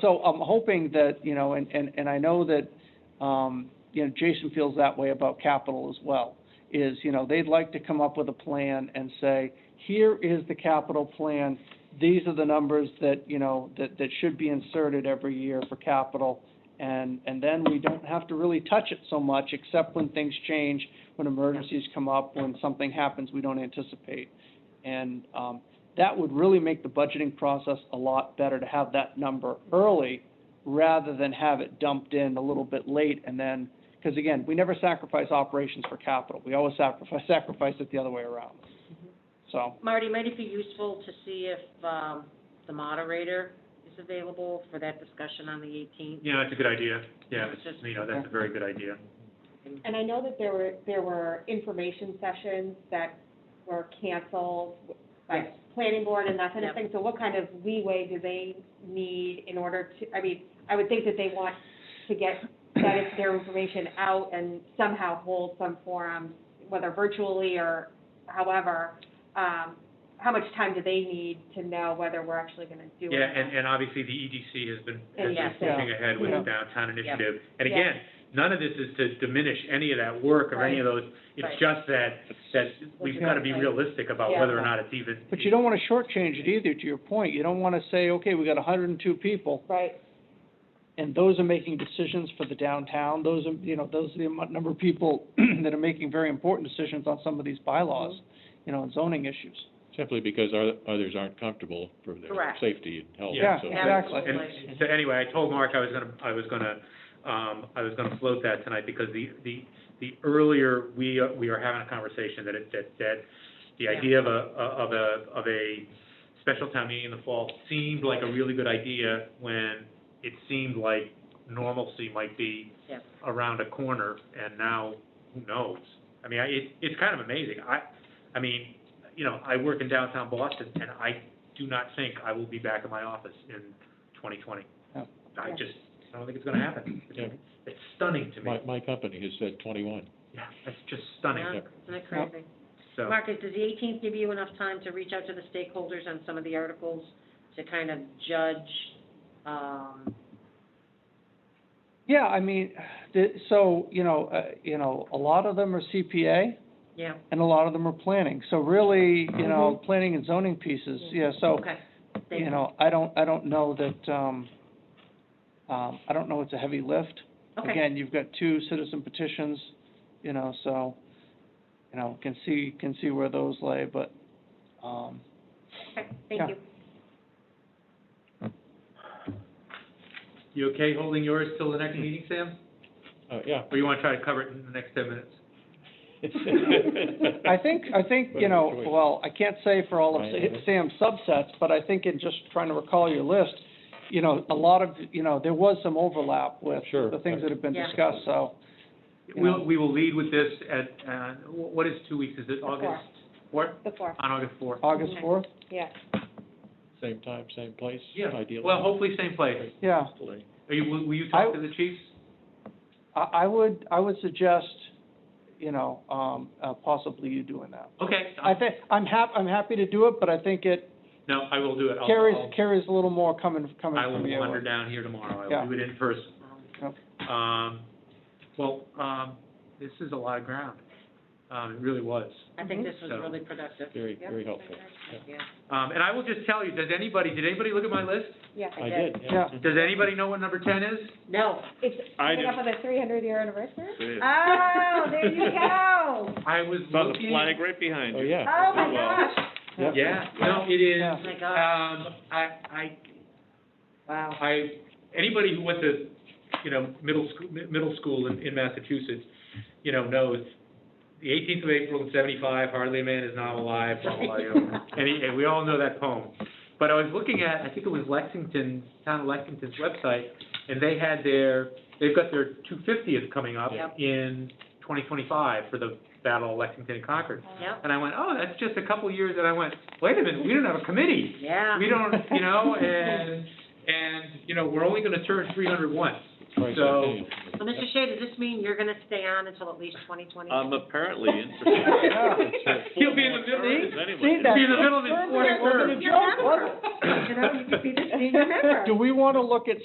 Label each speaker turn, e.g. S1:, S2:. S1: So I'm hoping that, you know, and, and, and I know that, um, you know, Jason feels that way about capital as well, is, you know, they'd like to come up with a plan and say, here is the capital plan, these are the numbers that, you know, that, that should be inserted every year for capital, and, and then we don't have to really touch it so much, except when things change, when emergencies come up, when something happens we don't anticipate. And, um, that would really make the budgeting process a lot better to have that number early rather than have it dumped in a little bit late and then, because again, we never sacrifice operations for capital. We always sacrifice, sacrifice it the other way around. So,
S2: Marty, might it be useful to see if, um, the moderator is available for that discussion on the eighteenth?
S3: Yeah, that's a good idea. Yeah,
S2: It's just-
S3: you know, that's a very good idea.
S4: And I know that there were, there were information sessions that were canceled by
S2: Yes.
S4: planning board and that kind of
S2: Yep.
S4: thing. So what kind of leeway do they need in order to, I mean, I would think that they want to get that, their information out and somehow hold some forum, whether virtually or however. Um, how much time do they need to know whether we're actually gonna do it?
S3: Yeah, and, and obviously the EDC has been, has been
S4: Yeah.
S3: pushing ahead with the
S1: Yeah.
S3: downtown
S2: Yeah.
S3: initiative. And
S4: Yeah.
S3: again, none of this is to diminish any of that work or any of those. It's
S2: Right.
S3: just that, that we've got to be
S2: Right.
S3: realistic about
S4: Yeah.
S3: whether or not it's even.
S1: but you don't want to shortchange it either, to your point. You don't want to say, okay, we got hundred and two people,
S4: Right,
S1: and those are making decisions for the downtown. Those are, you know, those are the amount- number of people that are making very important decisions on some of these bylaws, you know, and zoning issues.
S5: Simply because our- others aren't comfortable for their
S2: Correct.
S5: safety and health.
S3: Yeah.
S5: so-
S1: Yeah, exactly.
S3: And so anyway, I told Mark I was gonna, I was gonna, um, I was gonna float that tonight because the, the, the earlier we, are- we are having a conversation that it, that, that the
S2: Yeah.
S3: idea of a, of a, of a special town meeting in the fall seemed like a really good idea when it seemed like normalcy might be
S2: Yeah.
S3: around a corner and now who knows? I mean, I, it, it's kind of amazing. I, I mean, you know, I work in downtown Boston and I do not think I will be back in my office in twenty twenty.
S1: Yeah.
S3: I
S4: Yeah.
S3: just, I don't think it's gonna happen.
S5: Yeah.
S3: It's stunning to me.
S5: My, my company has said twenty-one.
S3: Yeah, it's just
S2: Yeah,
S3: stunning,
S2: Isn't it crazy?
S3: so.
S2: Marcus, does the eighteenth give you enough time to reach out to the stakeholders on some of the articles to kind of judge, um,
S1: Yeah, I mean, the, so, you know, uh, you know, a lot of them are CPA
S2: yeah,
S1: and a lot of them are planning. So really, you know, planning and zoning pieces, yeah, so,
S2: Mm-hmm. okay. Thank
S1: you know, I don't, I don't know that, um, um, I don't know it's a heavy lift.
S2: Okay,
S1: Again, you've got two citizen petitions, you know, so, you know, can see, can see where those lay, but, um,
S2: okay,
S1: yeah.
S2: thank you.
S3: You okay holding yours till the next meeting, Sam?
S5: Oh, yeah.
S3: Or you wanna try to cover it in the next ten minutes?
S1: I think, uh, I think, you know,
S5: Whatever choice.
S1: well, I can't say for all of
S5: Right,
S1: Sa-
S5: right.
S1: Sam's subsets, but I think in just trying to recall your list, you know, a lot of, you know, there was some overlap with
S5: Sure.
S1: the things that have been
S2: Yeah.
S1: discussed, so. you know.
S3: We'll, we will lead with this at, uh, wh- what is two weeks? Is it August fourth?
S4: the fourth,
S3: On August fourth?
S1: August fourth,
S4: yeah.
S5: Same time, same place,
S3: Yeah,
S5: ideally.
S3: well, hopefully same place.
S1: yeah.
S5: Hopefully.
S3: Are you, will will you
S1: I-
S3: talk to the chiefs?
S1: I, I would, I would suggest, you know, um, uh, possibly you doing that.
S3: Okay,
S1: I think, I'm hap, I'm happy to do it, but I think it
S3: no, I will do it. I'll-
S1: carries,
S3: I'll-
S1: carries a little more coming, coming
S3: I will
S1: from you.
S3: wander down here tomorrow. I
S1: Yeah.
S3: will do it in person. Um, well, um, this is a lot of ground. Um, it really was.
S2: I think this was
S3: So-
S2: really productive.
S5: Very,
S2: Yeah.
S5: very helpful.
S2: Yeah,
S3: Um, and I will just tell you, does anybody, did anybody look at my list?
S5: I did,
S1: Yeah.
S5: yeah.
S3: Does anybody know what number ten is?
S2: No,
S4: It's
S5: I
S4: coming
S5: did.
S4: up on the three hundred year anniversary?
S2: oh, there you go.
S3: I was
S6: Saw the
S3: looking.
S6: flag right behind
S5: Oh,
S6: you.
S5: yeah.
S2: Oh, my gosh.
S5: Yep.
S3: Yeah, no, it is,
S1: Yeah.
S2: Oh, my gosh,
S3: um, I, I,
S2: wow.
S3: I, anybody who went to, you know, middle school, middle school in, in Massachusetts, you know, knows the eighteenth of April in seventy-five, hardly a man is now alive, blah, blah, blah, you know. and, he- and we all know that poem. But I was looking at, I think it was Lexington, town of Lexington's website, and they had their, they've got their two fiftieth coming up
S2: Yep.
S3: in twenty twenty-five for the Battle of Lexington and Concord.
S2: Yep,
S3: And I went, oh, that's just a couple years, and I went, wait a minute, we don't have a committee
S2: yeah.
S3: we don't, you know, and, and, you know, we're only gonna turn three hundred once.
S5: Right,
S3: So-
S5: yeah.
S2: So, Mr. Shea, does this mean you're gonna stay on until at least twenty twenty?
S6: I'm apparently interested.
S3: He'll be in the middle,
S6: As anyone
S1: See,
S6: is.
S1: that-
S3: be in the middle of his fourth
S2: You're
S3: term.
S2: a member. You know, you could be the senior member.
S1: Do we want to look at